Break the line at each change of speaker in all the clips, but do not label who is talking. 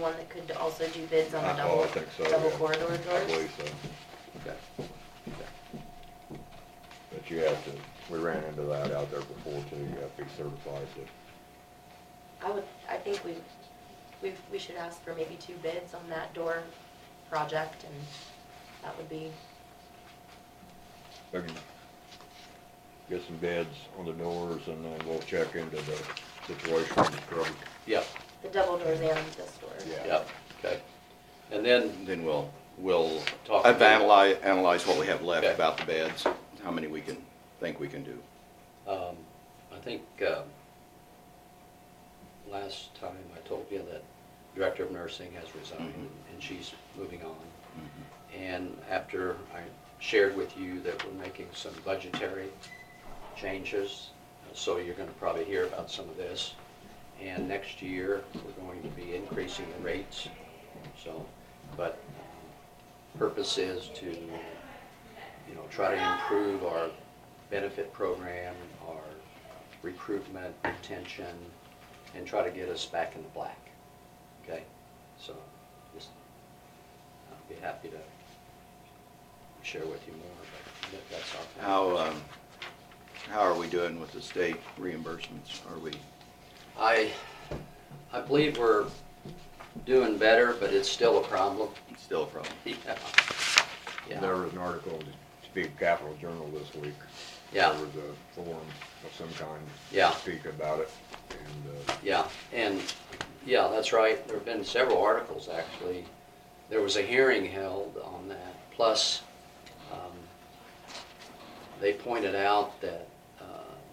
one that could also do bids on the
I-
double,
oh, I think so,
double
yeah.
corridor
I
doors?
believe so.
Okay. Okay.
But you have to, we ran into that out there before too, you have to be certified to,
I would, I think we, we, we should ask for maybe two bids on that door project and that would be,
they can get some bids on the doors and then we'll check into the situation with the scrubber.
Yep,
the double doors and this door.
yep, okay. And then,
Then we'll,
we'll talk.
I've analyzed, analyzed what we have left
Okay.
about the beds, how many we can, think we can do.
Um, I think, uh, last time I told you that Director of Nursing has resigned
Mhm.
and she's moving on. Mm-hmm. And after I shared with you that we're making some budgetary changes, uh, so you're gonna probably hear about some of this. And next year, we're going to be increasing the rates, so, but purpose is to, you know, try to improve our benefit program, our recruitment, retention, and try to get us back in the black, okay? So, just, I'll be happy to share with you more, but that- that's our plan.
How, um, how are we doing with the state reimbursements? Are we,
I, I believe we're doing better, but it's still a problem.
it's still a problem?
Yeah,
There
yeah,
was an article in Speak Capital Journal this week.
yeah,
There was a forum of some kind. to
Yeah.
Speak about it, and, uh,
yeah, and, yeah, that's right, there've been several articles, actually. There was a hearing held on that, plus, um, they pointed out that, uh,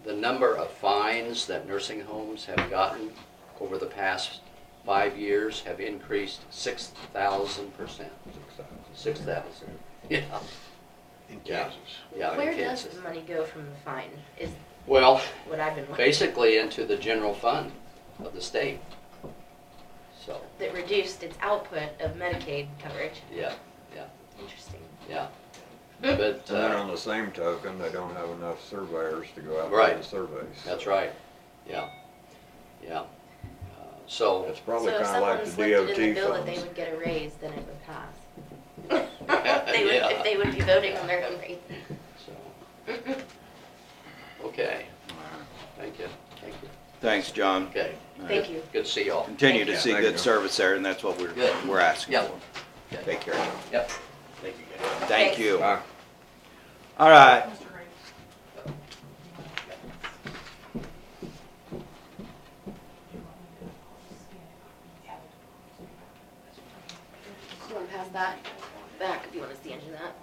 the number of fines that nursing homes have gotten over the past five years have increased six thousand percent.
six thousand.
Six thousand, yeah,
In
Yeah. yeah. in
Where does
Kansas.
the money go from the fine is
Well,
what I've been wondering.
basically into the general fund of the state. So,
That reduced its output of Medicaid coverage.
yeah, yeah,
Interesting.
yeah. But,
And then
uh,
on the same token, they don't have enough surveyors to go out
Right.
and do the surveys.
that's right, yeah, yeah. Uh, So,
It's probably
so if
kinda
someone
like the DOT funds.
slipped it in the bill that they would get a raise, then it would pass. they would,
Yeah.
if they would be voting on their own rate.
so. Okay, thank you, thank you.
Thanks, John. Uh,
Okay,
Thank you.
good to see y'all.
Continue to
Yeah,
see
thank you.
good service there, and that's what we're,
Good.
we're asking
Yeah.
for.
Okay.
Take care.
Yep. Thank you, guys.
Thank you.
Bye.
All right.
You wanna pass that back if you wanna stand in that?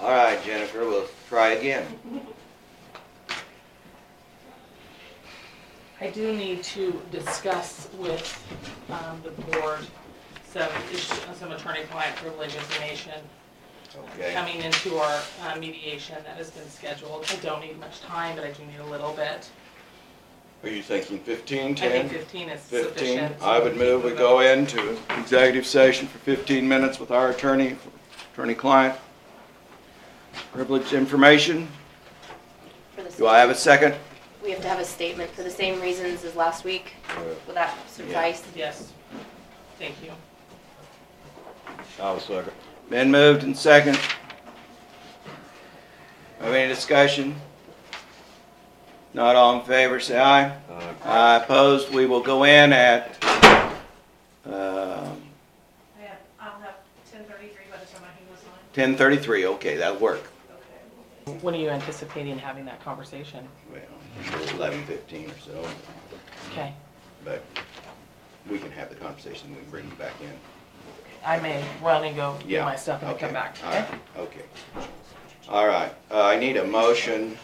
All right, Jennifer, we'll try again.
I do need to discuss with, um, the board some, issue- some attorney-client privilege information
Okay.
coming into our uh, mediation that has been scheduled. I don't need much time, but I do need a little bit.
Are you thinking fifteen,
I
ten?
think fifteen is
15,
sufficient.
I would move we go into executive session for 15 minutes with our attorney, attorney-client. Privileged information.
For the
Do I have a
state.
second?
We have to have a statement for the same reasons as last week.
Yeah.
Will that suffice?
Yes, thank you.
I'll second.
Been moved and second. Have any discussion? Not all in favor, say aye.
Uh,
Aye opposed, we will go in at, um,
I have, I'll have ten thirty-three by the time I hang this on.
10:33, okay, that'll work.
Okay.
When are you anticipating having that conversation?
Well, 11:15 or so,
Okay,
but we can have the conversation, we can bring it back in.
I may run and go
Yeah.
get my stuff and then come
okay,
back,
all
okay?
right, Okay. All right, uh, I need a motion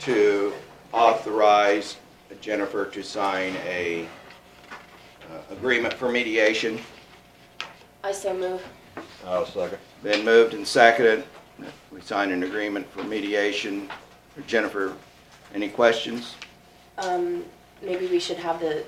to authorize Jennifer to sign a uh, agreement for mediation.
I so move.
I'll second.
Been moved and seconded. We signed an agreement for mediation. Jennifer, any questions?
Um, maybe we should have the